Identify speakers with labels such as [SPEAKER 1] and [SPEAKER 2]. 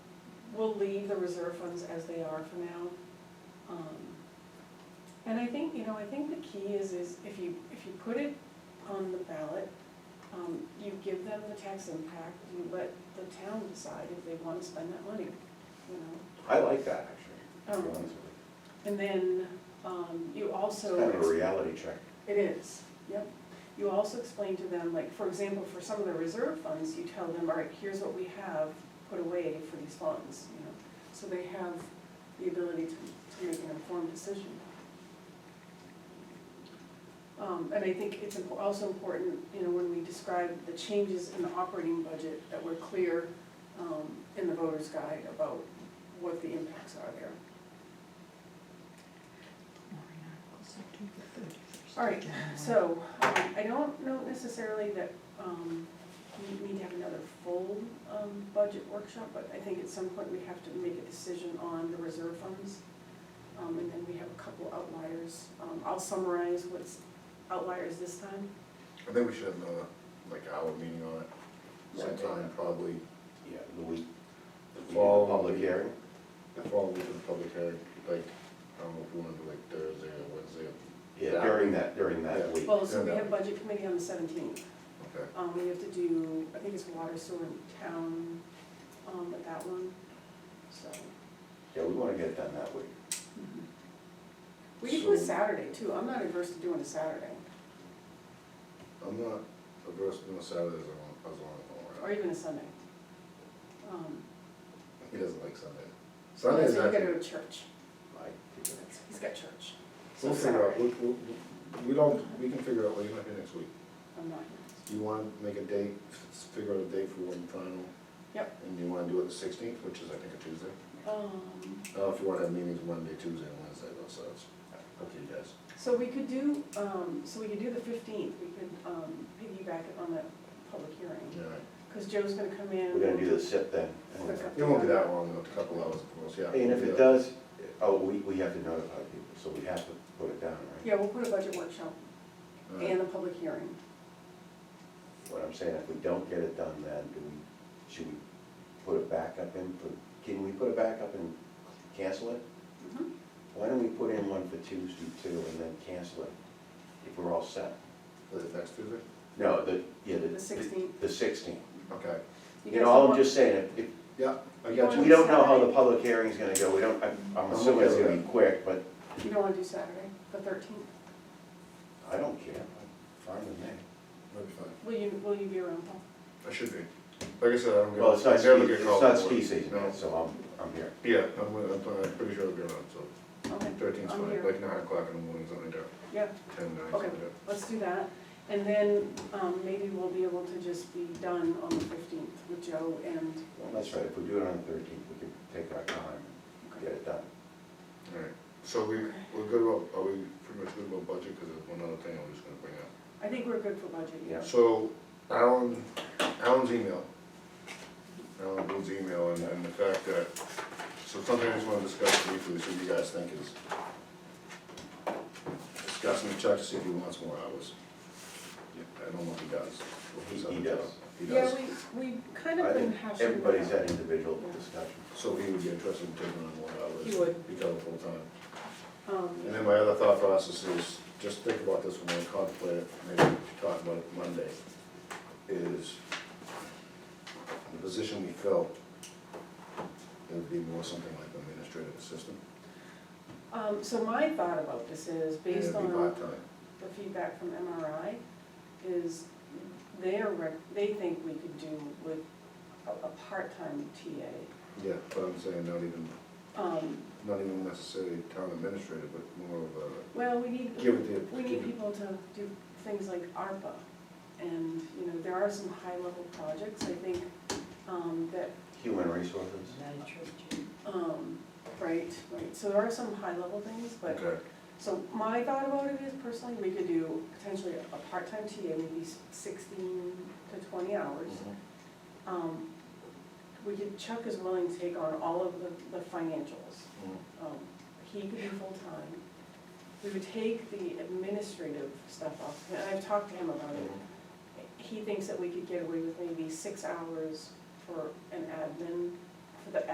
[SPEAKER 1] we'll leave the reserve funds as they are for now. Um, And I think, you know, I think the key is, is if you, if you put it on the ballot, um, you give them the tax impact, you let the town decide if they wanna spend that money, you know?
[SPEAKER 2] I like that, actually, to be
[SPEAKER 1] Um,
[SPEAKER 2] honest with
[SPEAKER 1] And then, um, you
[SPEAKER 2] you.
[SPEAKER 1] also.
[SPEAKER 2] It's kind of a reality check.
[SPEAKER 1] It is, yep. You also explain to them, like, for example, for some of the reserve funds, you tell them, all right, here's what we have put away for these funds, you know? So they have the ability to, to make an informed decision. Um, and I think it's impo- also important, you know, when we describe the changes in the operating budget, that we're clear, um, in the voter's guide about what the impacts are there. All right, So, um, I don't know necessarily that, um, we need to have another full, um, budget workshop, but I think at some point we have to make a decision on the reserve funds. Um, and then we have a couple outliers, um, I'll summarize what's outliers this time.
[SPEAKER 3] I think we should have another, like, hour meeting on it sometime, probably
[SPEAKER 2] Yeah, the week,
[SPEAKER 3] the
[SPEAKER 2] the
[SPEAKER 3] fall.
[SPEAKER 2] public hearing.
[SPEAKER 3] The fall week of the public hearing, like, I don't know if we wanna do like Thursday or Wednesday,
[SPEAKER 2] Yeah, during that, during that week.
[SPEAKER 1] Well, so we
[SPEAKER 3] Yeah.
[SPEAKER 1] have budget committee on the seventeenth,
[SPEAKER 3] okay.
[SPEAKER 1] um, we have to do, I think it's water, sewer, and town, um, with that one, so.
[SPEAKER 2] Yeah, we want to get it done that week.
[SPEAKER 1] We could do a
[SPEAKER 3] So-
[SPEAKER 1] Saturday too, I'm not adverse to doing a Saturday,
[SPEAKER 3] I'm not averse to doing Saturdays as long as long as I'm
[SPEAKER 1] or
[SPEAKER 3] around.
[SPEAKER 1] even a Sunday. Um,
[SPEAKER 3] He doesn't like Sunday.
[SPEAKER 1] So
[SPEAKER 3] Sundays
[SPEAKER 1] you gotta go
[SPEAKER 3] actually,
[SPEAKER 1] to church,
[SPEAKER 2] I think
[SPEAKER 1] That's- he's got church. So
[SPEAKER 3] we'll figure out,
[SPEAKER 1] Saturday.
[SPEAKER 3] we, we, we don't, we can figure out, well, you're not here next week.
[SPEAKER 1] I'm not here.
[SPEAKER 3] You wanna make a date, f- figure out a date for one final?
[SPEAKER 1] Yep.
[SPEAKER 3] And you wanna do it the sixteenth, which is I think a Tuesday?
[SPEAKER 1] Um,
[SPEAKER 3] I don't know if you wanna have meetings Monday, Tuesday, and Wednesday, though, so it's up to you guys.
[SPEAKER 1] so we could do, um, so we could do the fifteenth, we could, um, piggyback it on the public hearing,
[SPEAKER 3] All right.
[SPEAKER 1] cause Joe's gonna come in.
[SPEAKER 2] We're gonna do the SIP then. anyway.
[SPEAKER 1] Quick up.
[SPEAKER 3] It won't be that long, a couple hours, of course, yeah.
[SPEAKER 2] And if it does, oh, we, we have to notify people, so we have to put it down, right?
[SPEAKER 1] Yeah, we'll put a budget workshop and
[SPEAKER 3] Alright.
[SPEAKER 1] the public hearing.
[SPEAKER 2] What I'm saying, if we don't get it done then, do we, should we put it back up in, for- can we put it back up and cancel it?
[SPEAKER 1] Mhm.
[SPEAKER 2] Why don't we put in one for Tuesday too and then cancel it if we're all set?
[SPEAKER 3] Is it next Tuesday?
[SPEAKER 2] No, the, yeah, the.
[SPEAKER 1] The 16th.
[SPEAKER 2] The sixteenth.
[SPEAKER 3] Okay,
[SPEAKER 2] You
[SPEAKER 1] guys
[SPEAKER 2] know,
[SPEAKER 1] want-
[SPEAKER 2] I'm just saying, if,
[SPEAKER 3] yeah, I
[SPEAKER 1] You
[SPEAKER 2] if,
[SPEAKER 3] got
[SPEAKER 1] wanna-
[SPEAKER 3] you.
[SPEAKER 2] we don't know how the public hearing's gonna go, we don't, I'm- I'm
[SPEAKER 3] I'm
[SPEAKER 2] assuming it's
[SPEAKER 3] okay with
[SPEAKER 2] gonna be quick, but
[SPEAKER 1] You don't wanna do Saturday, the thirteenth?
[SPEAKER 2] I don't care. Fine with me.
[SPEAKER 3] That'd be fine.
[SPEAKER 1] Will you, will you be around, Paul?
[SPEAKER 3] I should be. Like I said, I don't get.
[SPEAKER 2] Well, it's
[SPEAKER 3] I
[SPEAKER 2] not ski,
[SPEAKER 3] never get
[SPEAKER 2] it's
[SPEAKER 3] called
[SPEAKER 2] not
[SPEAKER 3] for
[SPEAKER 2] ski
[SPEAKER 3] it.
[SPEAKER 2] season,
[SPEAKER 3] No.
[SPEAKER 2] yet, so I'm, I'm here.
[SPEAKER 3] Yeah, I'm, I'm, I'm pretty sure I'll be around, so
[SPEAKER 1] Okay,
[SPEAKER 3] thirteen's
[SPEAKER 1] I'm
[SPEAKER 3] fine,
[SPEAKER 1] here.
[SPEAKER 3] like nine o'clock in the morning, something like that,
[SPEAKER 1] Yeah,
[SPEAKER 3] ten, nine,
[SPEAKER 1] Okay.
[SPEAKER 3] something like
[SPEAKER 1] let's do that, and then, um, maybe we'll be able to just be done on the fifteenth with Joe and.
[SPEAKER 2] Well, that's right, if we do it on the thirteenth, we can take our time and get it done.
[SPEAKER 3] that. Alright, so we, we're good about, are we pretty much good about budget, cause there's one other thing I'm just gonna bring up.
[SPEAKER 1] I think we're good for budget, yeah.
[SPEAKER 2] Yeah.
[SPEAKER 3] So Alan, Alan's email, Alan Bill's email and, and the fact that, so something I just wanna discuss briefly, see what you guys think is discussing the check to see if he wants more hours. I don't know if he does.
[SPEAKER 2] He- he does.
[SPEAKER 3] He
[SPEAKER 1] Yeah,
[SPEAKER 3] does.
[SPEAKER 1] we, we kind
[SPEAKER 2] I
[SPEAKER 1] of been
[SPEAKER 2] think
[SPEAKER 1] hashing. it
[SPEAKER 2] everybody's
[SPEAKER 1] out.
[SPEAKER 2] had individual
[SPEAKER 1] Yeah.
[SPEAKER 2] discussion.
[SPEAKER 3] So he would be interested in taking on more hours.
[SPEAKER 1] He would.
[SPEAKER 3] Become full-time. And
[SPEAKER 1] Um,
[SPEAKER 3] then my other thought process is, just think about this when we contemplate it, maybe talk about it Monday, is the position we fill, it would be more something like administrative assistant.
[SPEAKER 1] um, so my thought about this is,
[SPEAKER 3] and
[SPEAKER 1] based
[SPEAKER 3] It'd be
[SPEAKER 1] on
[SPEAKER 3] part-time.
[SPEAKER 1] the feedback from MRI, is they are, rec- they think we could do with a, a part-time TA.
[SPEAKER 3] Yeah, but I'm saying not even,
[SPEAKER 1] Um,
[SPEAKER 3] not even necessarily town administrator, but more of a,
[SPEAKER 1] well, we need,
[SPEAKER 3] give it the.
[SPEAKER 1] we need people to do things like ARPA. And, you know, there are some high-level projects, I think, um, that
[SPEAKER 2] Human resources?
[SPEAKER 1] Um, right, right, so there are some high-level things, but,
[SPEAKER 3] Okay,
[SPEAKER 1] so my thought about it is personally, we could do potentially a part-time TA, maybe sixteen to twenty hours. Um, we could, Chuck is willing to take on all of the, the financials, um, he could be full-time. We would take the administrative stuff off, and I've talked to him about it, he thinks that we could get away with maybe six hours for an admin, for the